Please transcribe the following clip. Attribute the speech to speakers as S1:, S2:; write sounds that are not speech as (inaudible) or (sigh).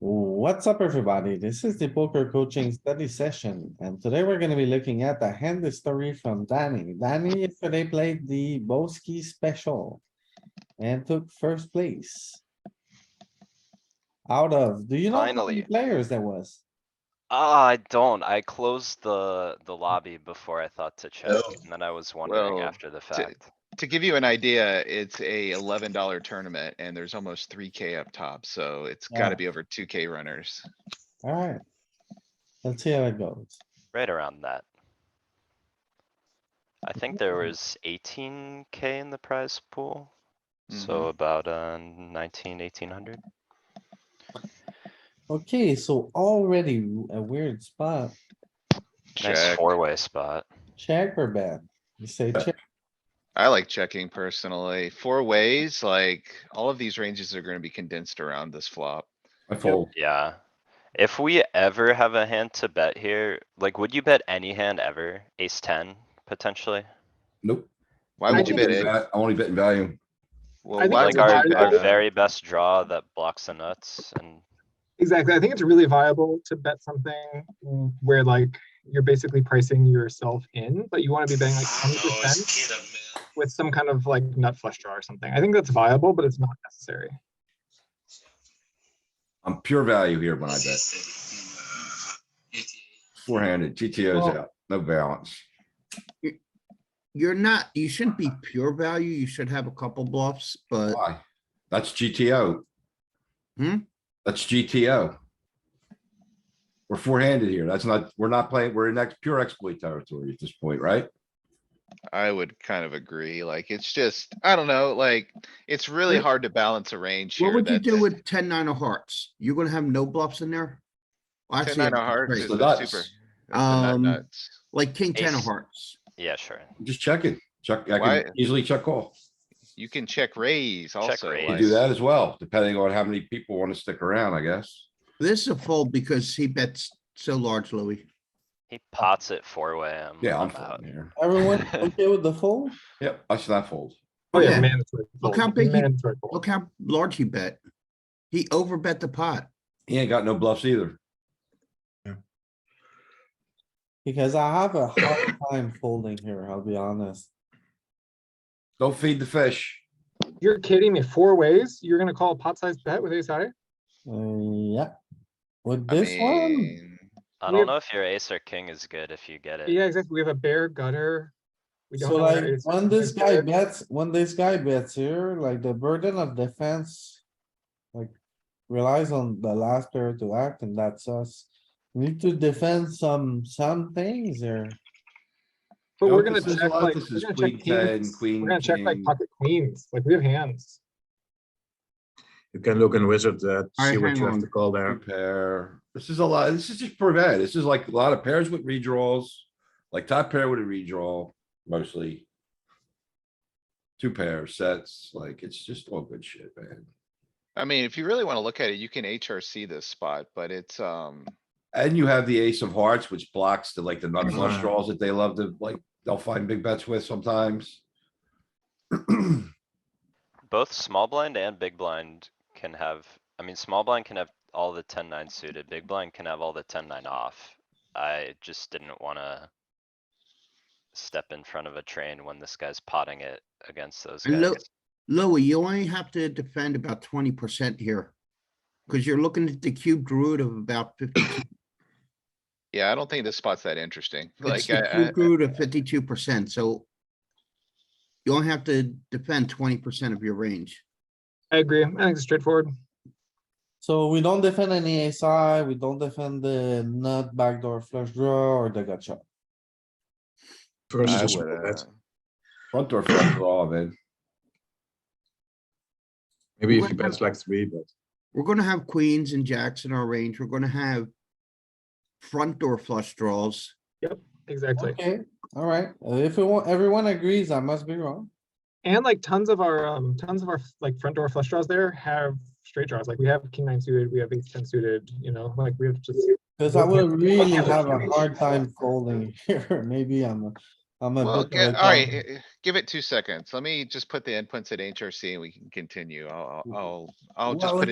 S1: What's up, everybody? This is the poker coaching study session, and today we're gonna be looking at the hand history from Danny. Danny yesterday played the Boski special and took first place. Out of, do you know how many
S2: Finally.
S1: players that was?
S2: Ah, I don't. I closed the, the lobby before I thought to check,
S3: Hmm. Oh.
S2: and then I was wondering
S3: Well,
S2: after the fact.
S3: To give you an idea, it's a eleven dollar tournament and there's almost three K up top, so it's
S1: Yeah.
S3: gotta be over two K runners.
S1: Alright. Let's see how it goes.
S2: Right around that. I think there
S3: Hmm.
S2: was eighteen K in the prize pool,
S3: Mm-hmm.
S2: so about, uh, nineteen, eighteen hundred.
S1: Okay, so already a weird spot.
S2: Nice
S3: Check.
S2: four-way spot.
S1: Check or bet? You say check,
S3: I like checking personally. Four ways, like all of these ranges are gonna be condensed around this flop.
S4: I fold.
S2: Yeah. If we ever have a hand to bet here, like, would you bet any hand ever? Ace ten, potentially?
S4: Nope.
S3: Why
S4: I
S3: would you
S4: won't
S3: bet
S4: in
S3: it?
S4: va- I only bet in value.
S3: Well,
S5: think
S3: why
S2: Like
S3: would you
S5: a
S2: our,
S5: value
S2: our
S3: bet it?
S2: very best draw that blocks the nuts and
S5: Exactly. I think it's really viable to bet something where like you're basically pricing yourself in, but you want to be betting like twenty percent with some kind of like nut flush draw or something. I think that's viable, but it's not necessary.
S4: I'm pure value here when I bet. Four-handed, GTO's
S1: Well-
S4: out, no balance.
S6: You're not, you shouldn't be pure value. You should have a couple bluffs, but
S4: Why? That's GTO.
S6: Hmm?
S4: That's GTO. We're four-handed here. That's not, we're not playing, we're in ex- pure exploit territory at this point, right?
S3: I would kind of agree, like, it's just, I don't know, like, it's really
S6: What-
S3: hard to balance a range here.
S6: what would you
S3: that-
S6: do with ten nine of hearts? You're gonna have no bluffs in there? Well,
S3: Ten
S6: actually,
S3: nine of hearts
S6: great.
S3: is
S4: The
S3: a super.
S4: nuts.
S3: that's a nut
S6: Um,
S3: nuts.
S6: Like king ten of
S2: Ace.
S6: hearts.
S2: yeah, sure.
S4: Just check it. Check, I
S3: Why-
S4: can easily check call.
S3: You can check raise also.
S4: You
S2: raise.
S4: can
S3: like-
S4: do that as well, depending on how many people want to stick around, I guess.
S6: This is a fold because he bets so large, Louis.
S2: He pots it four way. I'm,
S4: Yeah, I'm
S2: I'm out.
S4: folding here.
S1: everyone okay with the fold?
S4: Yep, I should not fold.
S5: Oh yeah,
S6: Yeah.
S5: mandatory.
S6: Look
S5: fold,
S6: how big you-
S5: mandatory fold.
S6: Look how large he bet. He overbet the pot.
S4: He ain't got no bluffs either.
S1: Because I have a hard time folding here, I'll be honest.
S4: Don't feed the fish.
S5: You're kidding me. Four ways? You're gonna call a pot sized bet with ace high?
S1: Uh, yeah. With
S3: I
S1: this one,
S3: mean,
S2: I
S5: We're-
S2: don't know if your ace or king is good if you get it.
S5: Yeah, exactly. We have a bare gutter. We don't
S1: so
S5: know where
S1: like,
S5: ace
S1: when
S5: is
S1: this guy
S5: good.
S1: bets, when this guy bets here, like the burden of defense. Like relies on the last player to act and that's us. We Need to defend some, some things here.
S5: But
S4: No,
S5: we're gonna
S4: this is a
S5: check
S4: lot-
S5: like,
S4: this
S5: we're
S4: is
S5: gonna
S4: queen
S5: check
S4: 10,
S5: kings.
S4: queen
S5: We're gonna check like
S4: king.
S5: pocket queens. Like we have hands.
S7: You can look in wizard, uh, to
S6: Alright,
S7: see what
S6: hang
S7: you have
S6: on.
S7: to call there.
S4: Pair. This is a lot. This is just pretty bad. This is like a lot of pairs with redraws. Like top pair with a redraw mostly. Two pair sets, like it's just all good shit, man.
S3: I mean, if you really wanna look at it, you can HRC this spot, but it's, um,
S4: And you have the ace of hearts, which blocks the like the nut flush
S7: Mhm.
S4: draws that they love to like, they'll find big bets with sometimes.
S2: Both small blind and big blind can have, I mean, small blind can have all the ten nine suited, big blind can have all the ten nine off. I just didn't wanna. Step in front of a train when this guy's potting it against those
S6: And look-
S2: guys.
S6: Louis, you only have to defend about twenty percent here. Cause you're looking at the cubed root of about fifty.
S3: yeah, I don't think this spot's that interesting.
S6: It's
S3: Like,
S6: the
S3: I- I-
S6: cube root of fifty-two percent, so you only have to defend twenty percent of your range.
S5: I agree. I think it's straightforward.
S1: So we don't defend any SI, we don't defend the nut backdoor flush draw or the gotcha.
S7: Versus
S3: I
S7: a small
S3: would,
S7: bet.
S3: uh,
S4: Front door flush draw, man.
S7: Maybe if
S6: What
S7: you bet
S6: about-
S7: like three, but
S6: We're gonna have queens and jacks in our range. We're gonna have front door flush draws.
S5: Exactly.
S1: Okay, alright, if it wa- everyone agrees, I must be wrong.
S5: And like tons of our um tons of our like front door flush draws there have straight draws. Like we have king nine suited, we have ace ten suited, you know, like we have just
S1: Cause I
S5: Okay.
S1: will really
S5: Okay.
S1: have a hard time folding (laughs) here, maybe I'm, a- I'm a bit. um,
S3: Well,
S1: of
S3: get,
S1: a
S3: alright,
S1: dumb-
S3: eh, eh, give it two seconds. Let me just put the inputs at HRC and we can continue. I'll, I'll- I'll, I'll just
S1: Well,
S3: put it.